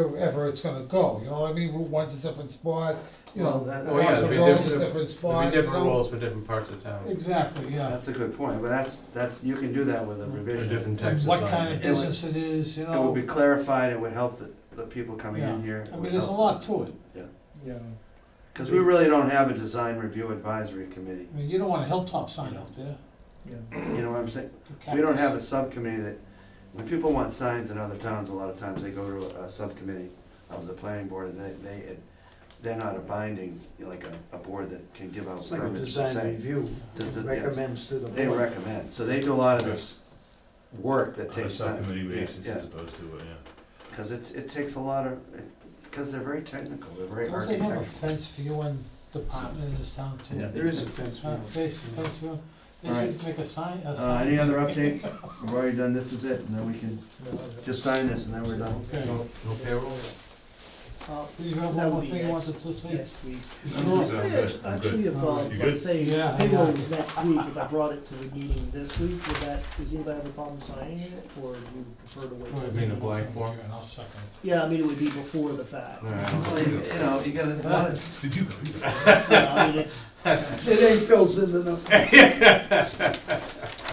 wherever it's gonna go, you know what I mean? Route one's a different spot, you Well, know, that- Well, oh, yeah, Russell it'd be Road's a different- different There'd spot, be you different know? rules for different parts of town, Exactly, yeah. That's a good point, but that's, that's, you can do that with a or revision. different types of. What zoning. kind of business it is, you It would know? be clarified, it would help the, the people coming in Yeah. here. I mean, there's a lot to it. Yeah. Because we really don't have a design review advisory committee, I mean, you don't want a hilltop sign out there. Yeah. you know what I'm saying? for We don't cactus. have a subcommittee that, when people want signs in other towns, a lot of times they go to a, a subcommittee of the planning board, and they, they, they're not a binding, like a, a board that can give out It's like a permits per design se. review, Does it- yes. recommends to the They board. recommend, so they do a lot of this work that On a takes time. subcommittee Yeah, basis yeah. as opposed to, uh, yeah. Cause it's, it takes a lot of, because they're very technical, they're very Don't they have a architectural. fence for you and department in this town too? Yeah, There is a fence. Uh, review. Face, fence, you know, All they right. should make a sign, a Uh, sign. any other updates? We've already done, this is it, and then we can just sign this and then we're done. Okay. No no payroll? Uh, Do you have That one would more be thing you next- wanted to say? Next week. I'm good, I'm good, I'm Actually, good. if, uh, You good? let's say Yeah, payroll yeah. is next week, if I brought it to the meeting this week, would that, does anybody have a problem signing it, or do you prefer to wait? Go till ahead. mean, the a blank meeting? form? I'll second it. Yeah, I mean, it would be before the fact. Well, You you know, you gotta, a lot of- Did you? Yeah, I mean, it's, It ain't Phil sending up.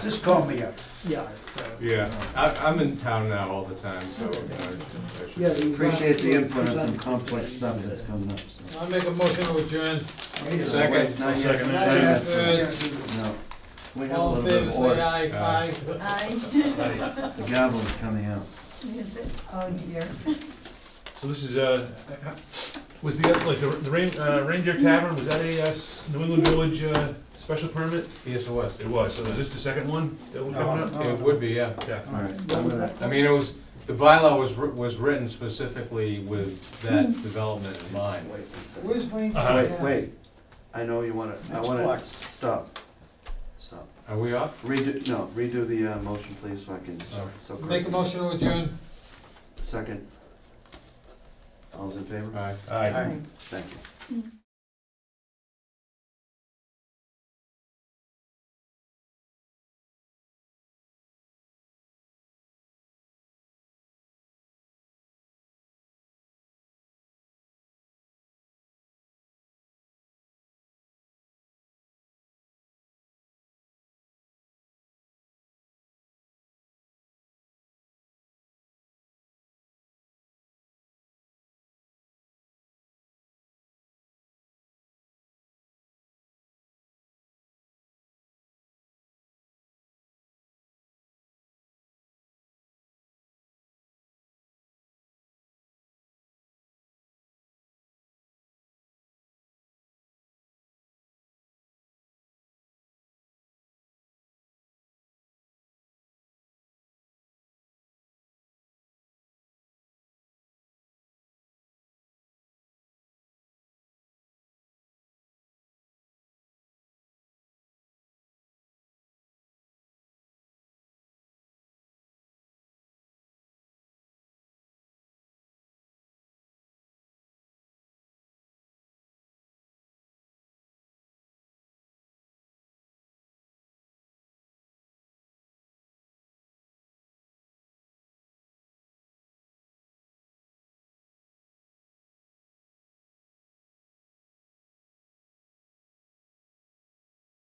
Just call me up. yeah, so, Yeah, I, I'm in town now all the time, so. uh, I should- yeah. these last appreciate two the are input on some presented. complex stuff that's coming up, so. I make a motion to adjourn. Second. Not yet. Second. Not yet. Good. No. We have a All little in favor, bit of say order. aye, aye. Aye. The gavel is coming out. Is it? Oh dear. So this is, uh, was the, like, the the Rain- uh, Reindeer Tavern, was that a uh, s- New England Village uh, special permit? Yes, it was. It was, so is this the second one that we're coming up? Oh. It would be, yeah. Yeah. All right. What was that? I mean, it was, the bylaw was, wr- was written specifically with that Hmm. development in mind. Wait, one second. Where's Wayne? Uh-huh. wait, wait. I know you wanna, I Next wanna, block. stop. Stop. Are we off? Redo, no, redo the, uh, motion please so I can, All so. Make a motion to adjourn. Second. All's in favor? Aye. Aye. Thank you.